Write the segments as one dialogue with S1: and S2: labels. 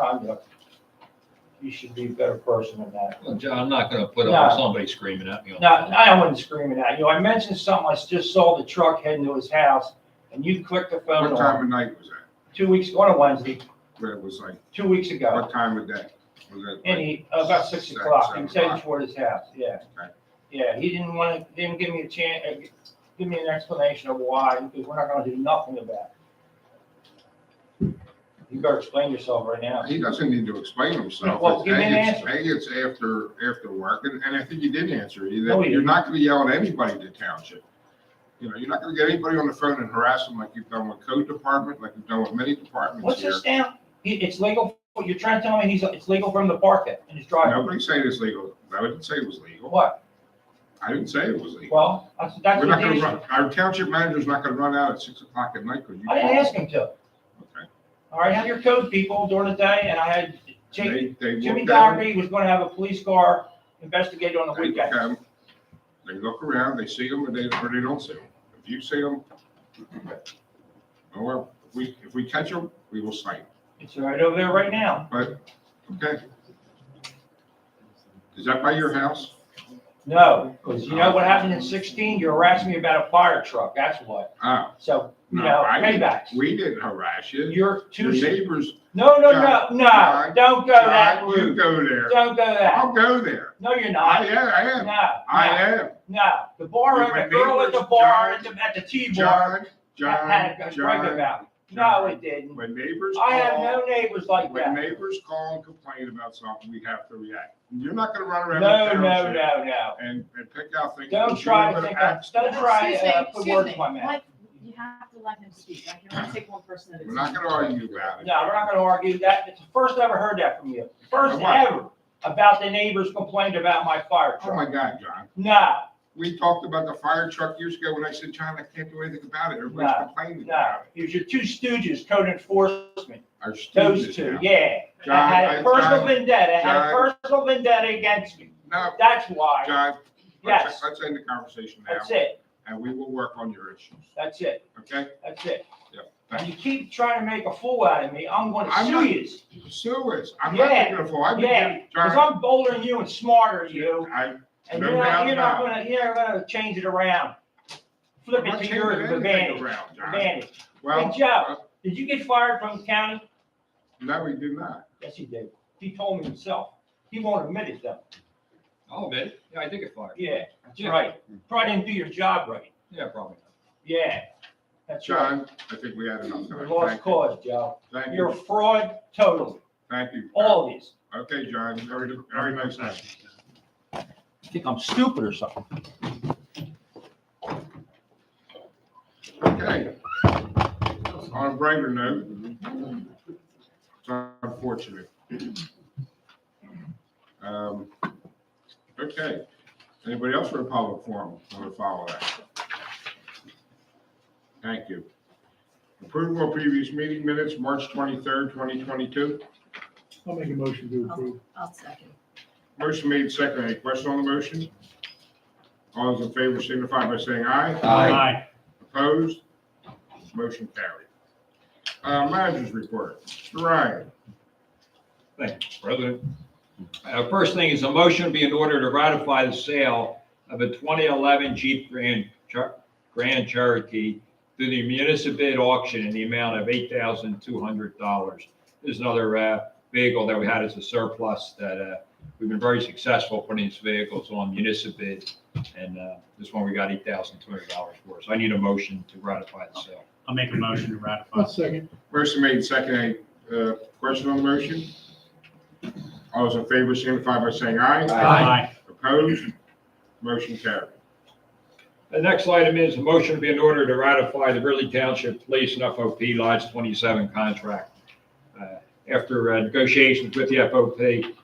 S1: conduct, you should be a better person than that.
S2: Well, John, I'm not gonna put up with
S1: No.
S2: somebody screaming at me. on the
S1: Now,
S2: phone.
S1: I wasn't screaming at you. I mentioned something, I just saw the truck heading to his house, and you clicked the phone
S3: What time
S1: on,
S3: of night was that?
S1: two weeks, on a Wednesday,
S3: Where it was like,
S1: two weeks ago.
S3: what time of day? Was that?
S1: And he, about six
S3: Six,
S1: o'clock, he
S3: seven
S1: was heading
S3: o'clock.
S1: toward his house, yeah.
S3: Okay.
S1: Yeah, he didn't want to, didn't give me a chance, give me an explanation of why, because we're not gonna do nothing about it. You better explain yourself right now.
S3: He doesn't need to explain himself.
S1: Well, give me an
S3: It's-
S1: answer.
S3: Hey, it's after, after work, and, and I think you did answer. You-
S1: No, you
S3: You're not gonna yell at anybody in the township. You know, you're not gonna get anybody on the phone and harass them like you've done with code department, like you've done with many departments
S1: What's
S3: here.
S1: this now? He, it's legal, you're trying to tell me he's, it's legal for him to park it in his driveway?
S3: Nobody's saying it's legal. I didn't say it was legal.
S1: What?
S3: I didn't say it was legal.
S1: Well, that's, that's
S3: We're
S1: the
S3: not gonna
S1: issue.
S3: run, our township manager's not gonna run out at six o'clock at night because you.
S1: I didn't
S3: called.
S1: ask him to.
S3: Okay.
S1: All right, have your code people during the day, and I had Jake,
S3: They- they
S1: Jimmy
S3: looked at it,
S1: Doherty was gonna have a police car investigate on the
S3: they look at
S1: weekend.
S3: 'em, They look around, they see them, or they, or they don't see them. If you see them, well, if we, if we catch them, we will cite 'em.
S1: It's right over there right now.
S3: okay? Is that by your house?
S1: No, because you know what happened in sixteen? You harassed me about a fire truck, that's what.
S3: Oh,
S1: So, you
S3: No,
S1: know,
S3: I didn't-
S1: paybacks.
S3: we didn't harass you.
S1: You're too,
S3: Your neighbors,
S1: no, no, no,
S3: John,
S1: no,
S3: John,
S1: don't go that
S3: God, you
S1: route.
S3: go there.
S1: Don't go that.
S3: I'll go there.
S1: No, you're
S3: I
S1: not.
S3: am, I
S1: No,
S3: am, I
S1: no,
S3: am.
S1: no. The bar,
S3: With my
S1: the girl at the
S3: neighbors,
S1: bar, at
S3: John,
S1: the, at the T bar.
S3: John,
S1: That had
S3: John,
S1: a brag
S3: John,
S1: about. it. No, it didn't.
S3: when neighbors
S1: I have
S3: call,
S1: no neighbors like
S3: when
S1: that.
S3: neighbors call and complain about something, we have to react. You're not gonna run
S1: No,
S3: around the
S1: no,
S3: township
S1: no, no.
S3: and, and pick out things.
S1: Don't
S3: that you
S1: try to
S3: haven't
S1: think of-
S3: asked
S1: don't
S3: for.
S1: try-
S4: Excuse
S1: uh,
S4: me,
S1: put
S4: excuse
S1: words
S4: me,
S1: in my mouth.
S4: let- You have to let him speak. I can only take one person at a
S3: We're
S4: time.
S3: not gonna argue about it.
S1: No, we're not gonna argue that. It's the first I ever heard that from you. First
S3: Come on.
S1: ever about the neighbors complained about my fire
S3: Oh
S1: truck.
S3: my God, John.
S1: No,
S3: We talked about the fire truck years ago when I said, John, I can't do anything about it. Everybody's
S1: No,
S3: complaining
S1: no.
S3: about it.
S1: It was your two stooges, code enforcement,
S3: Our
S1: those
S3: students
S1: two,
S3: now.
S1: yeah. I
S3: John,
S1: had
S3: I-
S1: a personal
S3: John,
S1: vendetta, I had a
S3: John.
S1: personal vendetta against me.
S3: No,
S1: That's why.
S3: John,
S1: Yes.
S3: let's, let's end the conversation now
S1: That's it.
S3: and we will work on your issues,
S1: That's it.
S3: okay?
S1: That's it.
S3: Yep.
S1: And you keep trying to make a fool out of me, I'm gonna
S3: I'm
S1: sue
S3: not-
S1: you.
S3: Sue is, I'm not
S1: Yeah,
S3: taking a fall. I've been,
S1: yeah,
S3: doing-
S1: Because
S3: John,
S1: I'm older than you and smarter than you,
S3: I,
S1: and
S3: No
S1: you're not,
S3: doubt
S1: you're not
S3: about
S1: gonna, you're not gonna change it around. Flip
S3: I'm
S1: it
S3: not
S1: to
S3: changing
S1: your
S3: anything
S1: advantage,
S3: around, John.
S1: advantage. Hey,
S3: Well, uh,
S1: Joe, did you get fired from the county?
S3: no, we did not.
S1: Yes, he did. He told me himself. He won't admit it though.
S2: I'll admit it. Oh, Yeah, I did get fired.
S1: Yeah, that's
S2: Yeah.
S1: right. Probably didn't do your job right.
S2: Yeah, probably.
S1: Yeah, that's right.
S3: John, I think we had enough.
S1: You
S3: time.
S1: lost
S3: Thank you.
S1: cause, Joe.
S3: Thank
S1: You're a
S3: you,
S1: fraud totally,
S3: thank you.
S1: all of these.
S3: Okay, John, very, very nice night.
S1: You Think I'm stupid or something?
S3: Okay. On a brighter note, it's unfortunate. Um, Okay, anybody else for a public forum want to follow that? Thank you. Approval of previous meeting minutes, March 23rd, 2022.
S5: I'll make a motion to approve.
S4: I'll second.
S3: Motion made second. Any question on the motion? All those in favor signify by saying aye.
S2: Aye.
S3: Opposed? Motion carried. Uh, managers report. Mr. Ryan,
S2: President. Uh, first thing is a motion be in order to ratify the sale of a 2011 Jeep Grand Cher- Grand Cherokee through the municipal bid auction in the amount of $8,200. This is another uh, vehicle that we had as a surplus that uh, we've been very successful putting these vehicles on municipal bid. And uh, this one we got $8,200 for. So I need a motion to ratify the sale.
S6: I'll make a motion to
S5: I'll
S6: ratify.
S5: second.
S3: motion made second. Any, uh, question on the motion? All those in favor signify by saying aye.
S6: Aye.
S3: Opposed? Motion carried.
S2: The next item is a motion to be in order to ratify the Ridley Township Police and FOP Lodge 27 contract. Uh, After uh, negotiations with the FOP,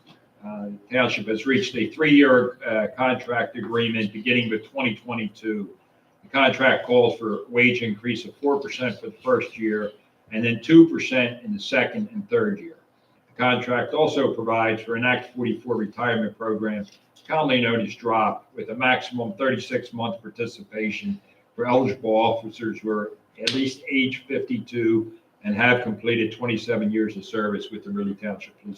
S2: uh, Township has reached a three-year uh, contract agreement beginning with 2022. The contract calls for a wage increase of 4% for the first year and then 2% in the second and third year. The contract also provides for an Act 44 retirement program commonly known as DROP, with a maximum 36-month participation for eligible officers who are at least age 52 and and have completed 27 years of service with the Ridley Township Police